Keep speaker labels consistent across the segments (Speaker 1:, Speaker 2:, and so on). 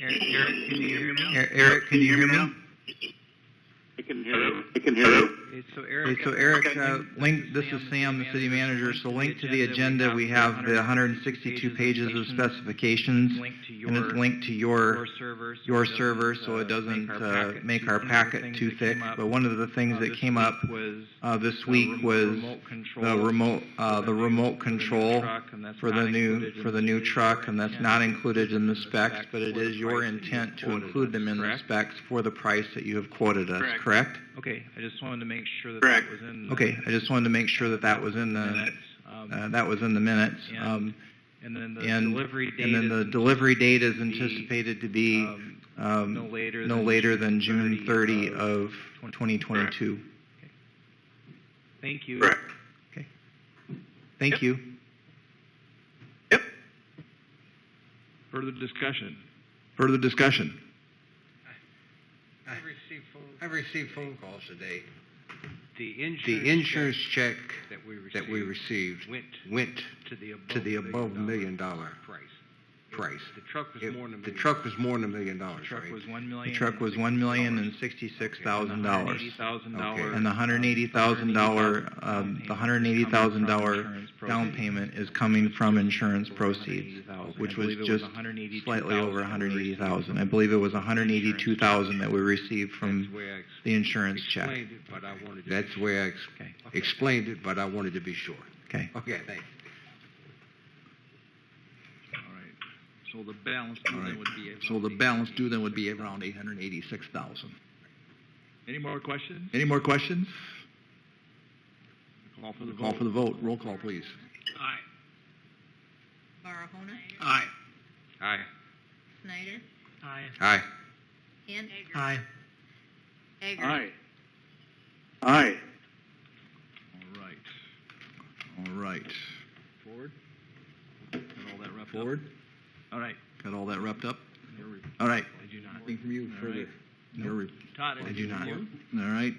Speaker 1: Eric, Eric, can you hear me now?
Speaker 2: E- Eric, can you hear me now?
Speaker 3: I can hear you. I can hear you.
Speaker 1: Okay, so
Speaker 2: Okay,
Speaker 1: Eric.
Speaker 2: so Eric, uh, link, this is Sam, the city manager, so link to the agenda, we have the 162 pages of specifications,
Speaker 1: Link to your,
Speaker 2: and it's linked to
Speaker 1: your
Speaker 2: your,
Speaker 1: server. so
Speaker 2: your
Speaker 1: it doesn't,
Speaker 2: server, so
Speaker 1: uh,
Speaker 2: it doesn't uh,
Speaker 1: packet
Speaker 2: make
Speaker 1: too
Speaker 2: our
Speaker 1: thin.
Speaker 2: packet too
Speaker 1: Things that
Speaker 2: thick,
Speaker 1: came up,
Speaker 2: but one of the things
Speaker 1: uh,
Speaker 2: that
Speaker 1: this
Speaker 2: came
Speaker 1: week
Speaker 2: up
Speaker 1: was
Speaker 2: uh, this
Speaker 1: the
Speaker 2: week
Speaker 1: rem-
Speaker 2: was
Speaker 1: remote control
Speaker 2: the remote, uh, the remote control for the new, for the new truck, and that's not included in the specs, but it is your intent to include them in the
Speaker 1: specs.
Speaker 2: specs for the price that you have quoted us,
Speaker 3: Correct.
Speaker 2: correct?
Speaker 1: Okay, I just wanted to make sure that
Speaker 3: Correct.
Speaker 1: that was in. the
Speaker 2: Okay, I just wanted to make sure that that was in the,
Speaker 1: minutes, um,
Speaker 2: uh, that was in the minutes.
Speaker 1: And
Speaker 2: Um,
Speaker 1: and then the
Speaker 2: and-
Speaker 1: delivery date
Speaker 2: And then the
Speaker 1: is,
Speaker 2: delivery date is
Speaker 1: to be,
Speaker 2: anticipated to be
Speaker 1: um,
Speaker 2: um,
Speaker 1: no later
Speaker 2: no
Speaker 1: than
Speaker 2: later than June 30 of
Speaker 3: 2022.
Speaker 2: 2022.
Speaker 1: Thank you.
Speaker 3: Correct.
Speaker 2: Thank
Speaker 3: Yep.
Speaker 2: you.
Speaker 3: Yep.
Speaker 4: Further discussion?
Speaker 2: Further discussion?
Speaker 5: I've received phone,
Speaker 6: I've received phone calls today.
Speaker 5: the insurance.
Speaker 6: The insurance check
Speaker 5: check That we received.
Speaker 6: that we received
Speaker 5: Went
Speaker 6: went
Speaker 5: to the above.
Speaker 6: to the above
Speaker 5: dollar
Speaker 6: million dollar
Speaker 5: Price.
Speaker 6: price.
Speaker 5: The truck was
Speaker 6: It-
Speaker 5: more than a million.
Speaker 6: The truck was more than a million dollars,
Speaker 1: Truck
Speaker 6: right?
Speaker 1: was one
Speaker 2: The
Speaker 1: million.
Speaker 2: truck was $1,066,000.
Speaker 1: Thousand
Speaker 6: Okay.
Speaker 1: dollar.
Speaker 2: And the $180,000, um, the $180,000 down payment is coming from insurance proceeds, which was just slightly over $180,000. I believe it was $182,000 that we received
Speaker 5: That's
Speaker 2: from
Speaker 5: the way I
Speaker 2: the insurance check.
Speaker 5: explained it, but I wanted to.
Speaker 6: That's the way I ex-
Speaker 2: Okay,
Speaker 6: explained it, but I wanted to be sure.
Speaker 2: okay.
Speaker 6: Okay, thanks.
Speaker 4: All right. So the balance due
Speaker 7: All
Speaker 4: then
Speaker 7: right.
Speaker 4: would be.
Speaker 7: So the balance due then would be around eight hundred and eighty-six thousand.
Speaker 4: Any more questions?
Speaker 7: Any more questions?
Speaker 4: Call for the
Speaker 7: Call for
Speaker 4: vote.
Speaker 7: the vote. Roll call, please.
Speaker 4: Aye.
Speaker 8: Barahona,
Speaker 3: Aye.
Speaker 5: Aye.
Speaker 8: Snyder,
Speaker 1: Aye.
Speaker 6: Aye.
Speaker 8: and
Speaker 2: Aye.
Speaker 8: Eggers.
Speaker 3: Aye. Aye.
Speaker 4: All right.
Speaker 7: All right.
Speaker 4: Forward? Got all that wrapped up?
Speaker 7: Forward.
Speaker 4: All right.
Speaker 7: Got all that wrapped up?
Speaker 4: Your re-
Speaker 7: All right.
Speaker 4: I do not.
Speaker 7: Anything from you
Speaker 4: All
Speaker 7: further?
Speaker 4: right.
Speaker 7: Your re-
Speaker 4: Todd,
Speaker 7: I do
Speaker 4: anything
Speaker 7: not.
Speaker 4: from you?
Speaker 7: All right.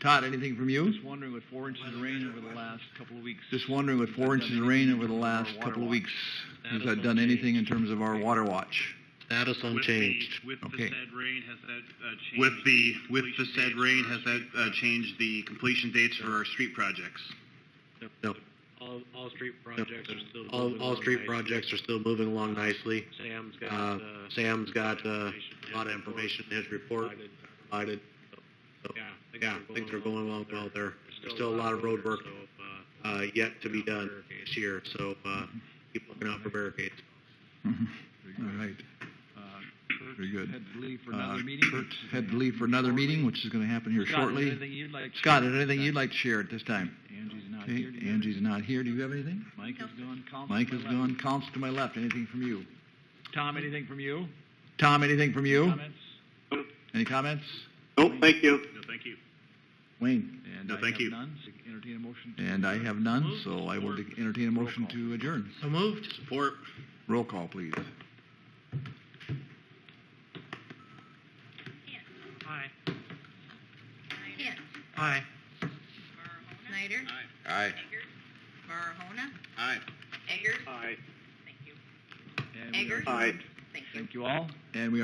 Speaker 7: Todd, anything from you?
Speaker 4: Just wondering with four inches of rain over the last couple of weeks.
Speaker 7: Just wondering with four inches of rain over the last couple of weeks, has that done anything in terms of our water watch?
Speaker 6: Status unchanged.
Speaker 9: With the
Speaker 7: Okay.
Speaker 9: said rain, has that uh, changed?
Speaker 10: With the, with the
Speaker 9: completion
Speaker 10: said
Speaker 9: dates?
Speaker 10: rain, has that uh, changed the completion dates for our street projects?
Speaker 5: All, all street projects are still.
Speaker 6: All, all street projects are still moving along nicely.
Speaker 5: Sam's
Speaker 6: Uh, Sam's got, uh, a lot of information in his report provided. So, Yeah, things are going along well there. There's still a lot of road work, uh, yet to be done this year, so, uh, keep looking out for barricades.
Speaker 7: Mm-hmm. All right.
Speaker 4: Uh, Kurt
Speaker 7: Very good.
Speaker 4: Had to leave for
Speaker 7: Uh,
Speaker 4: another meeting.
Speaker 7: Kurt had to leave for another meeting, which is going to happen here
Speaker 4: Scott, is there
Speaker 7: shortly.
Speaker 4: anything you'd like to
Speaker 7: Scott,
Speaker 4: share?
Speaker 7: is there anything you'd like to share at this time?
Speaker 4: Angie's not
Speaker 7: Okay,
Speaker 4: here. Do you have
Speaker 7: Angie's not here. Do you have anything?
Speaker 4: anything? Mike is gone. Colin
Speaker 7: Mike is
Speaker 4: left.
Speaker 7: gone. Council to my left. Anything from you?
Speaker 4: Tom, anything from you?
Speaker 7: Tom, anything from you?
Speaker 4: Comments?
Speaker 7: Any comments?
Speaker 3: Nope, thank you.
Speaker 9: No, thank you.
Speaker 7: Wayne?
Speaker 4: And
Speaker 10: No,
Speaker 4: I
Speaker 10: thank
Speaker 4: have
Speaker 10: you.
Speaker 4: none. So Entertain a motion. to-
Speaker 7: And uh, I have none, so I will entertain a motion to adjourn.
Speaker 6: So moved. Support.
Speaker 7: Roll call, please.
Speaker 8: Hint,
Speaker 6: Aye.
Speaker 8: Snyder,
Speaker 6: Aye.
Speaker 8: Eggers, Barahona,
Speaker 10: Aye.
Speaker 8: Eggers,
Speaker 3: Aye.
Speaker 8: thank you,
Speaker 4: And we are
Speaker 8: Eggers?
Speaker 4: adjourned.
Speaker 3: Aye.
Speaker 8: thank you.
Speaker 4: Thank you all.
Speaker 7: And we